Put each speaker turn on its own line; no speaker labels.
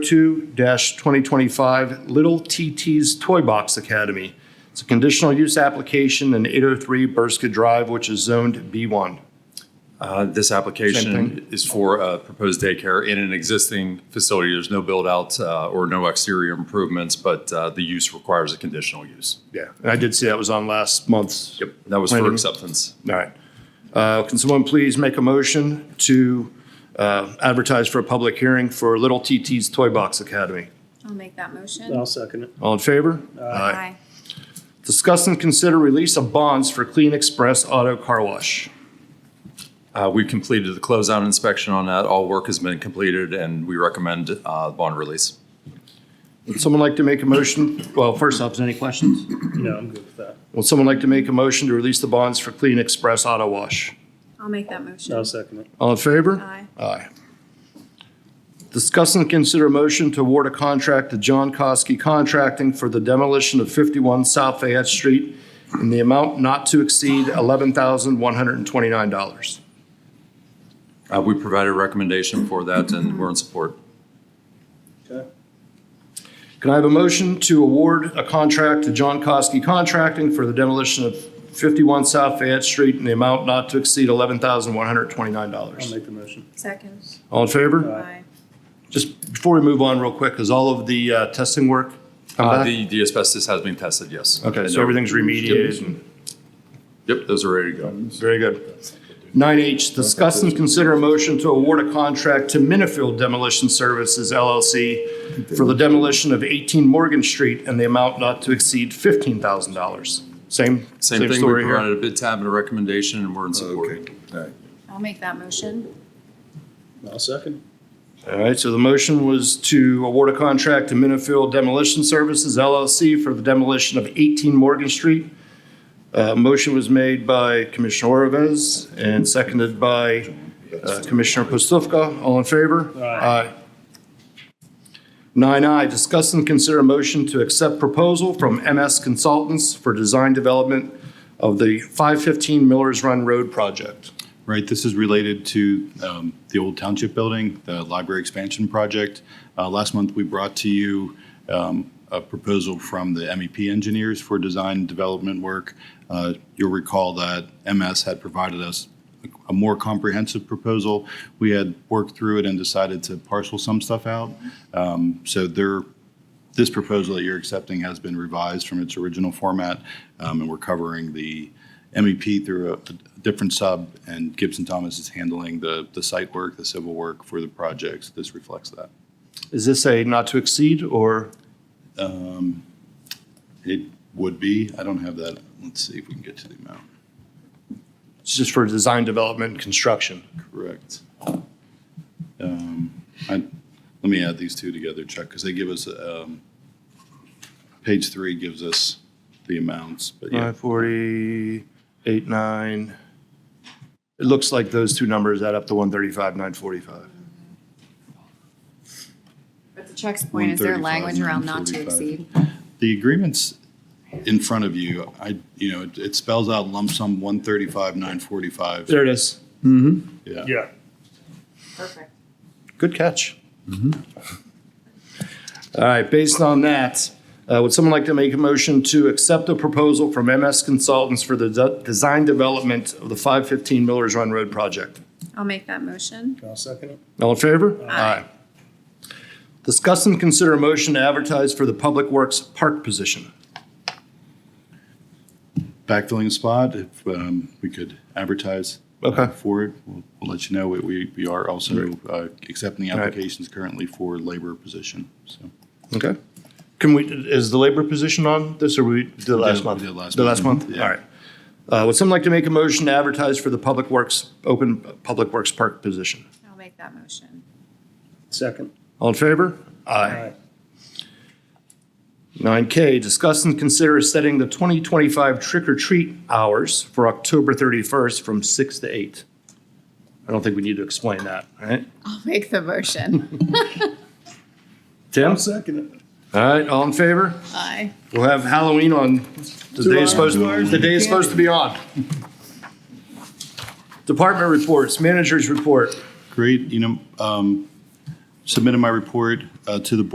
2-2025 Little TT's Toy Box Academy. It's a conditional use application in 803 Burska Drive, which is zoned B1.
Uh, This application is for a proposed daycare in an existing facility. There's no build-out uh, or no exterior improvements, but uh, the use requires a conditional use.
Yeah. And I did see that was on last month's.
Yep, that was
Planning.
for acceptance.
All right. Uh, Can someone please make a motion to uh, advertise for a public hearing for Little TT's Toy Box Academy?
I'll make that motion.
I'll second it.
All in favor? Discuss and consider release of bonds for Clean Express Auto Car Wash.
Uh, We've completed the closeout inspection on that. All work has been completed, and we recommend uh, bond release.
Would someone like to make a motion? Well, first off, is there any questions?
No, I'm good with that.
Would someone like to make a motion to release the bonds for Clean Express Auto Wash?
I'll make that
I'll
motion.
second it.
All in favor?
Aye.
Aye. Discuss and consider motion to award a contract to John Kosky Contracting for the demolition of 51 South Fayette Street in the amount not to exceed $11,129.
Uh, We provided a recommendation for that, and we're in support.
Can I have a motion to award a contract to John Kosky Contracting for the demolition of 51 South Fayette Street in the amount not to exceed
I'll
$11,129?
make the motion.
Second.
All in favor?
Aye.
Just before we move on real quick, has all of the uh, testing work come
Uh,
back?
The the asbestos has been tested, yes.
Okay,
And
so
they're-
everything's remediated and,
Yep, those are ready to go.
very good. Nine H, discuss and consider a motion to award a contract to Minifield Demolition Services LLC for the demolition of eighteen Morgan Street and the amount not to exceed fifteen thousand dollars. Same,
Same
same
thing, we
story here.
provided a bid tab and a recommendation, and we're in support.
I'll make that motion.
I'll second.
All right, so the motion was to award a contract to Minifield Demolition Services LLC for the demolition of eighteen Morgan Street. Uh, motion was made by Commissioner Orovez and seconded by Uh, Commissioner Postlufka, all in favor? Aye. Nine I, discuss and consider a motion to accept proposal from MS Consultants for design development of the 515 Millers Run Road project.
Right, this is related to um, the old township building, the library expansion project. Uh, Last month, we brought to you um, a proposal from the MEP engineers for design development work. Uh, You'll recall that MS had provided us a more comprehensive proposal. We had worked through it and decided to parcel some stuff out. Um, So there, this proposal that you're accepting has been revised from its original format, um, and we're covering the MEP through a a different sub, and Gibson Thomas is handling the, the site work, the civil work for the projects. This reflects that.
Is this a not to exceed or,
It would be, I don't have that, let's see if we can get to the amount.
it's just for design development and construction?
Correct. Um, I, let me add these two together, Chuck, because they give us, um, page three gives us the amounts, but yeah.
940, 89. It looks like those two numbers add up to 135, 945.
But to Chuck's point, is there
135,
language around not to
145?
exceed?
The agreements in front of you, I, you know, it- it spells out lump sum one thirty-five, nine forty-five.
There it is.
Yeah.
Yeah.
Perfect.
Good catch. Mm-hmm. All right, based on that, uh, would someone like to make a motion to accept a proposal from MS Consultants for the de- design development of the 515 Millers Run Road project?
I'll make that motion.
I'll second it.
All in favor? Aye. Discuss and consider a motion to advertise for the Public Works Park position.
Backfilling a spot, if, um, we could advertise
Okay.
for it, we'll, we'll let you know. We- We, we are also, uh, accepting
right.
applications currently for labor position, so.
Okay. Can we, is the labor position on this, or we did it last
did-
month?
we did last
The last
month.
month?
Mhm.
All right. Uh, Would someone like to make a motion to advertise for the Public Works, open Public Works Park position?
I'll make that motion.
Second.
All in favor?
Aye.
Nine K, discuss and consider setting the twenty twenty-five trick or treat hours for October thirty-first from six to eight. I don't think we need to explain that, right?
I'll make the motion.
Tim?
Second it.
All right, all in favor?
Aye.
We'll have Halloween on, the day is supposed, the day is supposed to be on. Department reports, managers report.
Great, you know, um, submitted my report uh, to the board